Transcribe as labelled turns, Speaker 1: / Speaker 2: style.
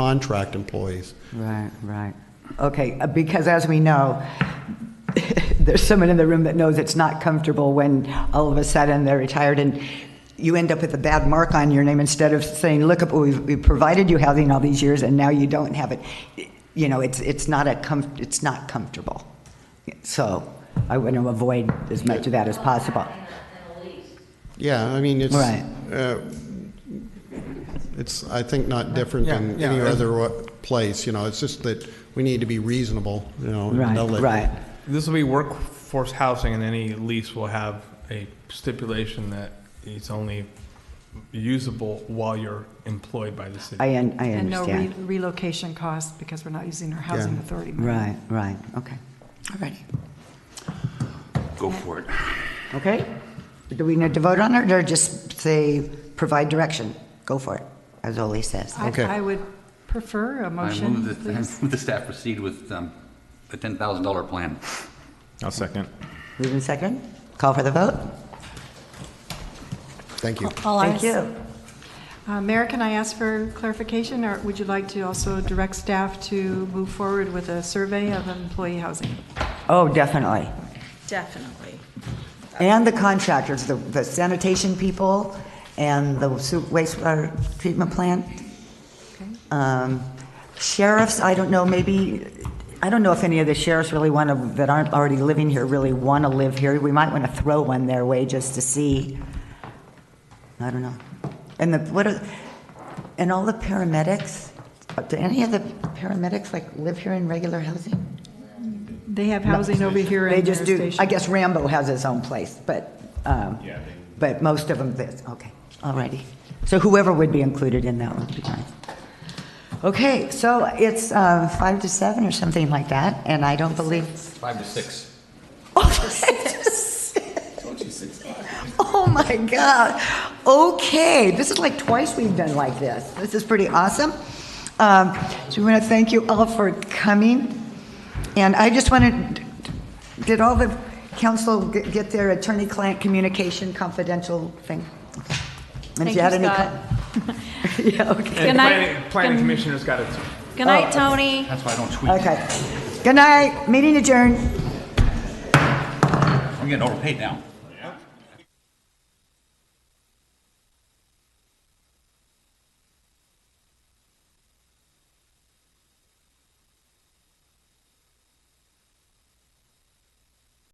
Speaker 1: contract employees.
Speaker 2: Right, right. Okay, uh, because as we know, there's someone in the room that knows it's not comfortable when all of a sudden they're retired and you end up with a bad mark on your name instead of saying, look, we've, we've provided you housing all these years and now you don't have it. You know, it's, it's not a com, it's not comfortable. So I want to avoid as much of that as possible.
Speaker 1: Yeah, I mean, it's,
Speaker 2: Right.
Speaker 1: uh, it's, I think, not different than
Speaker 3: Yeah, yeah,
Speaker 1: any
Speaker 3: yeah.
Speaker 1: other wa- place, you know, it's just that we need to be reasonable, you know. and
Speaker 2: Right,
Speaker 1: they'll let-
Speaker 2: right.
Speaker 3: This will be workforce housing, and any lease will have a stipulation that it's only usable while you're employed by the city.
Speaker 2: I, un- I
Speaker 4: And no re-
Speaker 2: understand.
Speaker 4: relocation costs because we're not using our housing
Speaker 1: Yeah.
Speaker 4: authority money.
Speaker 2: Right, right, okay. All righty.
Speaker 5: Go for it.
Speaker 2: Okay. Do we need to vote on it or just say, provide direction? Go for it, as Ole says.
Speaker 4: I-
Speaker 1: Okay.
Speaker 4: I would prefer a
Speaker 5: I
Speaker 4: motion,
Speaker 5: move that, I
Speaker 4: please.
Speaker 5: move the staff proceed with um, a $10,000 plan.
Speaker 3: I'll second.
Speaker 2: Move in second. Call for the vote.
Speaker 1: Thank you.
Speaker 4: All
Speaker 2: Thank
Speaker 4: ayes.
Speaker 2: you.
Speaker 4: Uh, Mayor, can I ask for clarification, or would you like to also direct staff to move forward with a survey of employee housing?
Speaker 2: Oh, definitely.
Speaker 6: Definitely.
Speaker 2: And the contractors, the the sanitation people and the su- wastewater treatment plant. Um, Sheriffs, I don't know, maybe, I don't know if any of the sheriffs really want to, that aren't already living here, really want to live here. We might want to throw one their way just to see. I don't know. And the, what are, and all the paramedics, uh, do any of the paramedics like live here in regular housing?
Speaker 4: They have housing over here
Speaker 2: They
Speaker 4: in their
Speaker 2: just do,
Speaker 4: station.
Speaker 2: I guess Rambo has his own place, but, um, but most of them, this, okay, all righty. So whoever would be included in that would be nice. Okay, so it's uh, five to seven or something like that, and I don't believe.
Speaker 5: Five to six.
Speaker 2: Oh, my God. Okay, this is like twice we've done like this. This is pretty awesome. Um, So we want to thank you all for coming. And I just want to, did all the council g- get their attorney-client communication confidential thing? Okay. And if
Speaker 6: Thank
Speaker 2: you had
Speaker 6: you,
Speaker 2: any co-
Speaker 6: Scott.
Speaker 2: Yeah, okay.
Speaker 3: And
Speaker 6: Good night.
Speaker 3: planning, planning
Speaker 6: Good-
Speaker 3: commissioner's got it too.
Speaker 6: Good night, Tony.
Speaker 5: That's why I don't tweet.
Speaker 2: Okay. Good night, meeting adjourned.
Speaker 5: I'm getting overpaid now.